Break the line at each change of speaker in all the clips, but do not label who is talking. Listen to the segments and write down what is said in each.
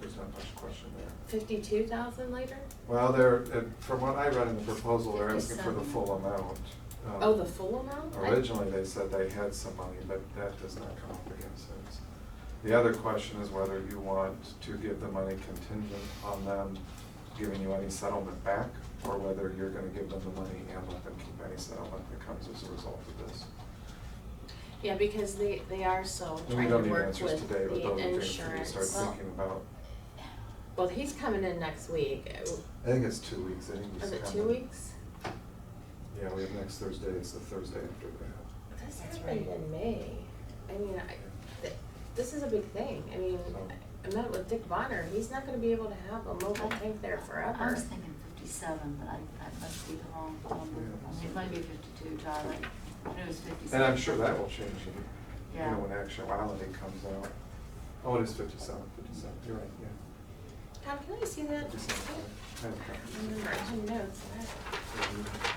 not much question there.
Fifty-two thousand later?
Well, they're, uh, from what I read in the proposal, they're asking for the full amount. Um,
Oh, the full amount? I-
Originally, they said they had some money, but that does not come up against us. The other question is whether you want to give the money contingent on them giving you any settlement back, or whether you're gonna give them the money and let them keep any settlement that comes as a result of this.
Yeah, because they, they are so
And we
trying to
don't need
work
answers
with
today, but
the
those are things we need to
insurance.
start thinking about.
Well, he's coming in next week. Uh,
I think it's two weeks, I think he's
Is it two
coming.
weeks?
Yeah, we have next Thursday, it's the Thursday after that.
This
That's
happened
right.
in May. I mean, I, th- this is a big thing. I mean,
So-
I met with Dick Bonner. He's not gonna be able to have a mobile tank there
Oh. I
forever.
was thinking fifty-seven, but I, I must be the wrong number.
Yeah.
It might be fifty-two, Charlie. I knew it was fifty-seven.
And I'm sure that will change, in, you
Yeah.
know, when actuality comes out. Oh, it is fifty-seven, fifty-seven, you're right, yeah.
Tom, can I see that?
57, yeah. I have a
I
copy.
don't remember. I have notes.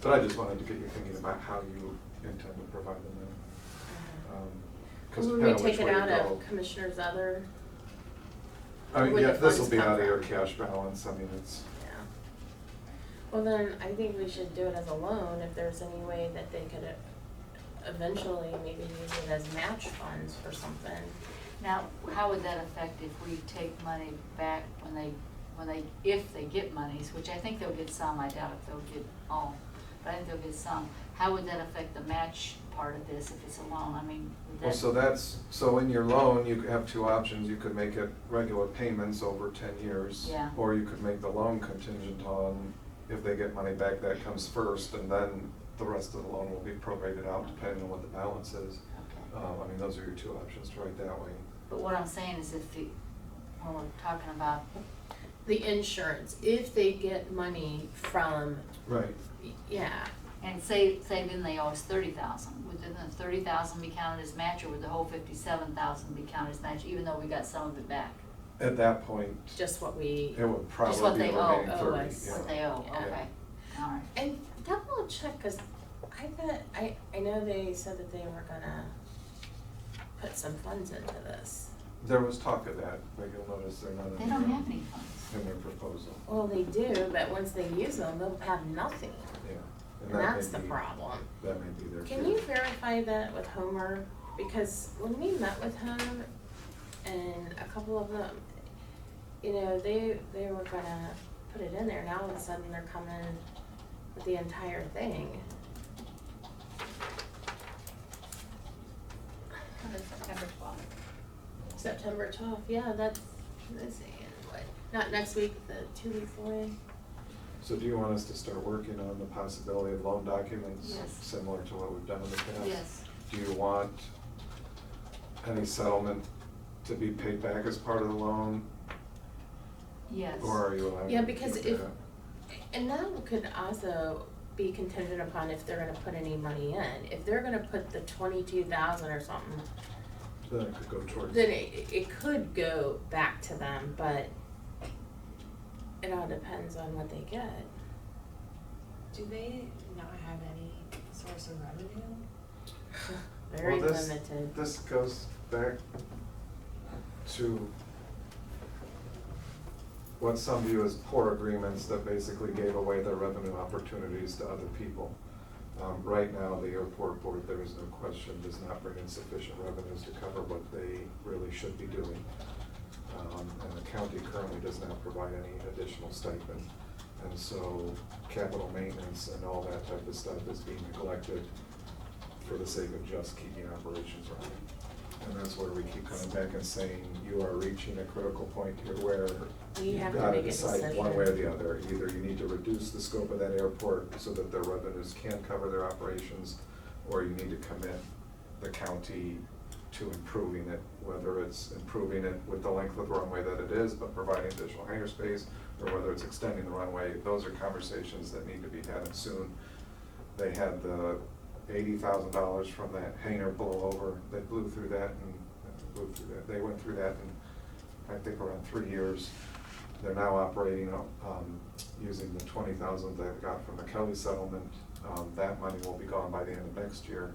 But I just wanted to get you thinking about how you intend to provide the money. Um, 'cause
Would we
depending on
take
which
it
way you
out of
go-
commissioner's other?
I mean,
where
yeah,
the
this will
funds
be
come
out of your
from?
cash balance, I mean, it's,
Yeah. Well, then, I think we should do it as a loan, if there's any way that they could uh, eventually maybe use it as match funds for something.
Now, how would that affect if we take money back when they, when they, if they get monies, which I think they'll get some, I doubt if they'll get all, but I think they'll get some. How would that affect the match part of this if it's a loan? I mean, would that?
Well, so that's, so in your loan, you have two options, you could make it regular payments over ten years.
Yeah.
Or you could make the loan contingent on, if they get money back, that comes first, and then the rest of the loan will be prorated out depending on what the balance is.
Okay.
Um, I mean, those are your two options to write that way.
But what I'm saying is if the, when we're talking about,
The insurance, if they get money from,
Right.
yeah,
and say, say then they owe us thirty thousand, would then the thirty thousand be counted as match or would the whole fifty-seven thousand be counted as match, even though we got some of it back?
At that point,
just what we.
it would
what
probably be
they
the
owe, Oh,
remaining
owe
thirty,
us.
Oh, yeah.
What they owe,
Yeah.
okay, all right.
And double check, cause I thought, I, I know they said that they were gonna put some funds into this.
There was talk of that, but you'll notice they're not in
They don't
their-
have any funds.
In their proposal,
Well, they do, but once they use them, they'll have nothing,
yeah.
and
that may
that's the
be-
problem.
That may be their.
Can
fear.
you verify that with Homer? Because when we met with him and a couple of them, you know, they, they were gonna put it in there. Now all of a sudden they're coming with the entire thing.
September twelfth.
September twelfth, yeah, that's, let's see, what, not next week, the two weeks away?
So do you want us to start working on the possibility of loan documents?
Yes.
Similar to what we've done in the past?
Yes.
Do you want any settlement to be paid back as part of the loan?
Yes.
Or are you allowed?
Yeah,
to
because
do
if-
that?
And that could also be contingent upon if they're gonna put any money in. If they're gonna put the twenty-two thousand or something,
Then it could go towards.
then it, it could go back to them, but it all depends on what they get.
Do they not have any source of revenue?
Very
Well, this-
limited.
This goes back to what some view as poor agreements that basically gave away their revenue opportunities to other people. Um, right now, the airport board, there is no question, does not bring in sufficient revenues to cover what they really should be doing. Um, and the county currently does not provide any additional stipend. And so capital maintenance and all that type of stuff is being neglected for the sake of just keeping operations running. And that's where we keep coming back and saying, you are reaching a critical point here where
We
you've
have to
gotta
make a
decide one way or the
decision.
other. Either you need to reduce the scope of that airport so that their revenues can cover their operations, or you need to commit the county to improving it, whether it's improving it with the length of the runway that it is, but providing additional hangar space, or whether it's extending the runway, those are conversations that need to be had soon. They had the eighty thousand dollars from that hangar blowover, they blew through that and blew through that, they went through that in, I think around three years. They're now operating, um, using the twenty thousand they got from the Kelly settlement, um, that money will be gone by the end of next year.